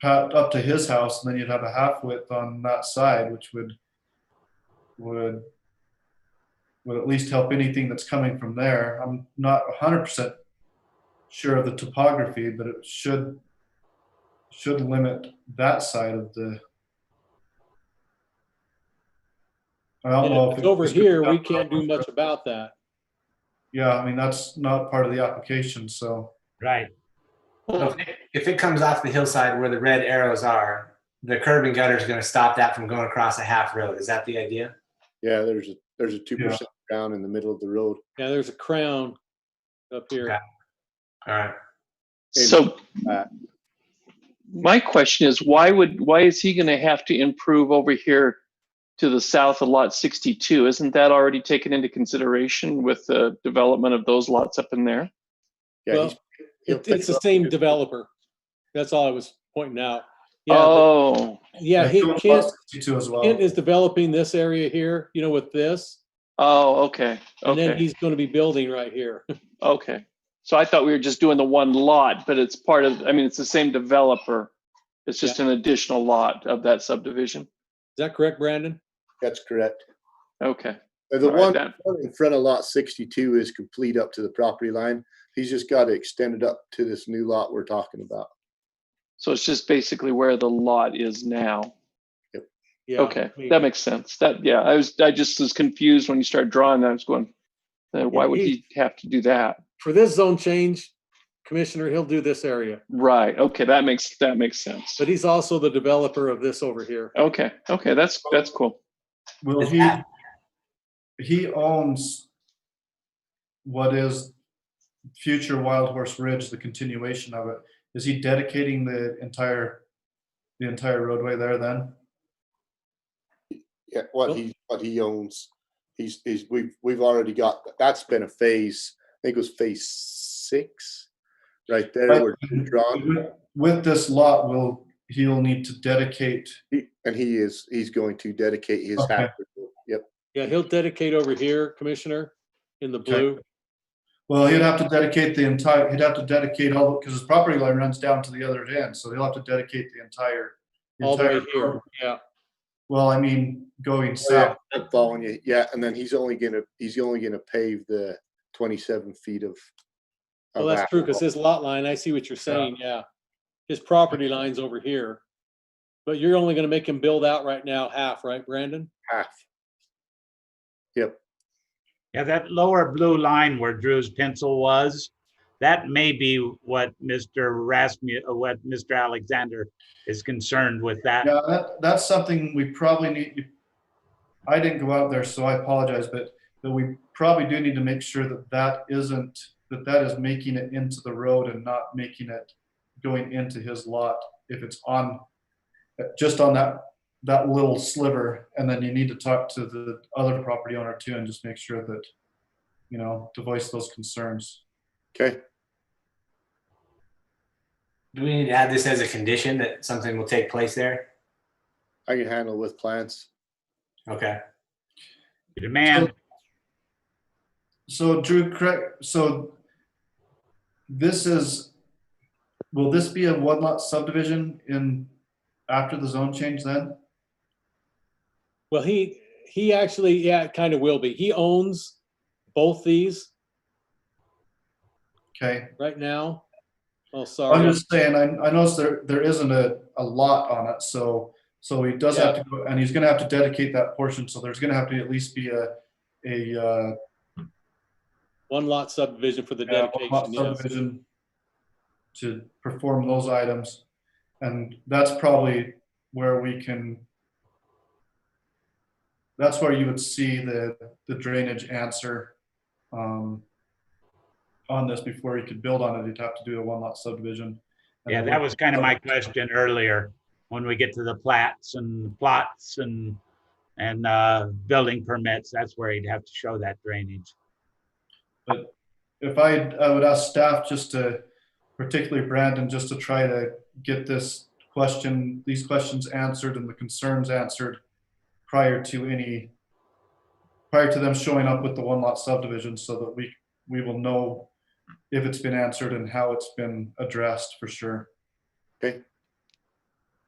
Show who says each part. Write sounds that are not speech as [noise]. Speaker 1: pa- up to his house, and then you'd have a half width on that side, which would, would, would at least help anything that's coming from there. I'm not hundred percent sure of the topography, but it should, should limit that side of the. I don't
Speaker 2: And
Speaker 1: know
Speaker 2: if
Speaker 1: if
Speaker 2: it's
Speaker 1: it-
Speaker 2: over here, we can't do much about that.
Speaker 1: Yeah, I mean, that's not part of the application, so.
Speaker 3: Right.
Speaker 4: Well, if it- If it comes off the hillside where the red arrows are, the curb and gutter is going to stop that from going across a half road. Is that the idea?
Speaker 5: Yeah, there's a, there's a two percent crown in the middle of the road.
Speaker 2: Yeah, there's a crown up here.
Speaker 4: Okay. All right.
Speaker 5: Maybe.
Speaker 6: So
Speaker 5: Uh,
Speaker 6: my question is, why would, why is he going to have to improve over here to the south of lot 62? Isn't that already taken into consideration with the development of those lots up in there?
Speaker 5: Yeah,
Speaker 2: Well,
Speaker 5: he's- he'll
Speaker 2: It- It's
Speaker 5: pick
Speaker 2: the
Speaker 5: up-
Speaker 2: same developer. That's all I was pointing out. Yeah,
Speaker 6: Oh,
Speaker 2: yeah, he,
Speaker 1: Doing
Speaker 2: Kent,
Speaker 1: 62 as well.
Speaker 2: Kent is developing this area here, you know, with this.
Speaker 6: oh, okay,
Speaker 2: And then
Speaker 6: okay,
Speaker 2: he's going to be building right here. [laughs]
Speaker 6: okay. So I thought we were just doing the one lot, but it's part of, I mean, it's the same developer. It's just an additional lot of that subdivision.
Speaker 2: Is that correct, Brandon?
Speaker 5: That's correct.
Speaker 6: Okay.
Speaker 5: Uh, The
Speaker 6: all right,
Speaker 5: one
Speaker 6: that-
Speaker 5: one in front of lot sixty-two is complete up to the property line. He's just got to extend it up to this new lot we're talking about.
Speaker 6: So it's just basically where the lot is now.
Speaker 2: Yeah.
Speaker 6: Okay,
Speaker 2: I mean,
Speaker 6: that makes sense. That, yeah, I was, I just was confused when you started drawing that. I was going, uh, why would
Speaker 2: he-
Speaker 6: he have to do that?
Speaker 2: For this zone change, Commissioner, he'll do this area,
Speaker 6: Right, okay, that makes, that makes sense.
Speaker 2: but he's also the developer of this over here.
Speaker 6: Okay, okay, that's, that's cool.
Speaker 1: Will
Speaker 4: Is
Speaker 1: he,
Speaker 4: that-
Speaker 1: he owns what is future Wild Horse Ridge, the continuation of it. Is he dedicating the entire, the entire roadway there then?
Speaker 5: Yeah, what he, what he owns. He's, he's, we've, we've already got, that's been a phase, I think it was phase six. Right there,
Speaker 1: Right.
Speaker 5: where it's drawn,
Speaker 1: With this lot, will, he'll need to dedicate,
Speaker 5: He- and he is, he's going to dedicate his
Speaker 1: Okay.
Speaker 5: half. Yep,
Speaker 2: Yeah, he'll dedicate over here, Commissioner, in the
Speaker 1: Okay.
Speaker 2: blue.
Speaker 1: well, he'd have to dedicate the entire, he'd have to dedicate all, because his property line runs down to the other end, so he'll have to dedicate the entire.
Speaker 2: All the way
Speaker 1: entire
Speaker 2: here,
Speaker 1: road.
Speaker 2: yeah.
Speaker 1: Well, I mean, going
Speaker 5: Oh, yeah.
Speaker 1: south.
Speaker 5: I'm following you. Yeah, and then he's only gonna, he's only gonna pave the twenty-seven feet of.
Speaker 2: Well,
Speaker 5: of
Speaker 2: that's true, because
Speaker 5: asphalt.
Speaker 2: his lot line, I see what you're saying, yeah. His property line's over here. But you're only gonna make him build out right now half, right, Brandon?
Speaker 5: Half.
Speaker 3: Yeah, that lower blue line where Drew's pencil was, that may be what Mr. Rasmu, uh, what Mr. Alexander is concerned with that.
Speaker 1: Yeah, that, that's something we probably need, I didn't go out there, so I apologize, but, but we probably do need to make sure that that isn't, that that is making it into the road and not making it going into his lot if it's on, just on that, that little sliver. And then you need to talk to the other property owner too and just make sure that, you know, to voice those concerns.
Speaker 5: Okay,
Speaker 4: Do we need to add this as a condition that something will take place there?
Speaker 5: I can handle with plants.
Speaker 4: Okay.
Speaker 3: Demand,
Speaker 1: So Drew, correct, so this is, will this be a one lot subdivision in, after the zone change then?
Speaker 2: Well, he, he actually, yeah, it kind of will be. He owns both these
Speaker 1: Okay,
Speaker 2: right now. Oh,
Speaker 1: I'm
Speaker 2: sorry.
Speaker 1: just saying, I, I noticed there, there isn't a, a lot on it, so, so he does have to, go and he's gonna have to dedicate that portion, so there's gonna have to at least be a, a, uh,
Speaker 2: One lot subdivision for the
Speaker 1: yeah, one lot
Speaker 2: dedication, yes.
Speaker 1: subdivision to perform those items, and that's probably where we can that's where you would see the, the drainage answer um, on this before you could build on it. You'd have to do a one lot subdivision.
Speaker 3: yeah, that was kind of my question earlier, when we get to the plats and plots and, and, uh, building permits, that's where he'd have to show that drainage.
Speaker 1: If I, I would ask staff just to, particularly Brandon, just to try to get this question, these questions answered and the concerns answered prior to any, prior to them showing up with the one lot subdivision so that we, we will know if it's been answered and how it's been addressed for sure.
Speaker 5: Okay,